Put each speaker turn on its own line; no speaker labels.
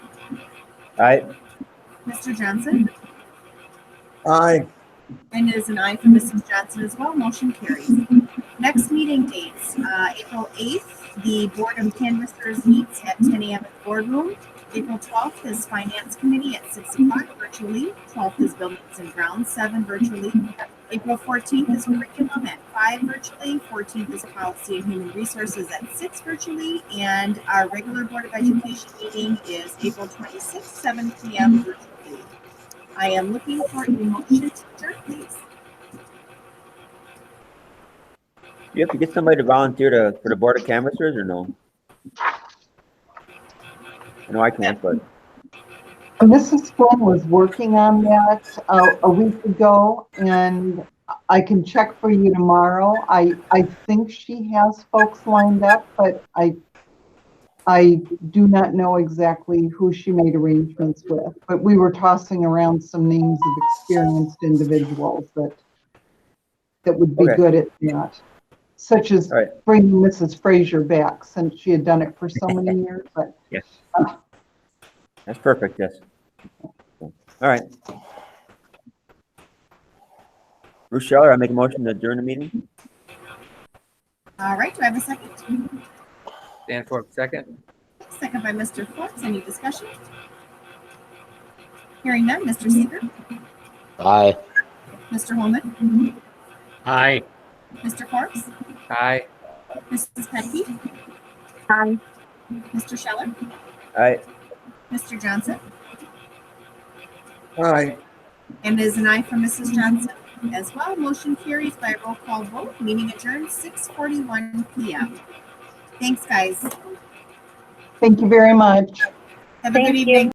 Aye.
Mr. Johnson?
aye,
And it is an aye for Mrs. Johnson as well. Motion carries. Next meeting dates, uh, April 8th, the Board of Canvassers meets at 10 a.m. at the boardroom. April 12th is Finance Committee at 6 o'clock virtually. 12th is Buildings and Grounds, 7 virtually. April 14th is Curriculum at 5 virtually. 14th is Policy and Human Resources at 6 virtually. And our regular Board of Education meeting is April 26th, 7 p.m. virtually. I am looking for a motion to adjourn, please.
You have to get somebody to volunteer to, for the board of canvassers or no? No, I can't, but
Mrs. Flynn was working on that uh, a week ago, and I can check for you tomorrow. I, I think she has folks lined up, but I, I do not know exactly who she made arrangements with. But we were tossing around some names of experienced individuals that, that would be
Okay.
good at that. Such as
All right.
bringing Mrs. Frazier back, since she had done it for so many years, but
yes. That's perfect, yes. All right. Bruce Scheller, I make a motion to adjourn the meeting?
All right, do I have a second?
Danforth, second.
Second by Mr. Fox, any discussion? Hearing none, Mr. Seeger,
Aye.
Mr. Holman,
Aye.
Mr. Forbes,
Aye.
Mrs. Petke,
Aye.
Mr. Scheller,
Aye.
Mr. Johnson,
aye.
and it is an aye for Mrs. Johnson as well. Motion carries by roll call vote, meeting adjourned six forty-one PM. Thanks, guys.
thank you very much.
Have a good
Thank you.
evening.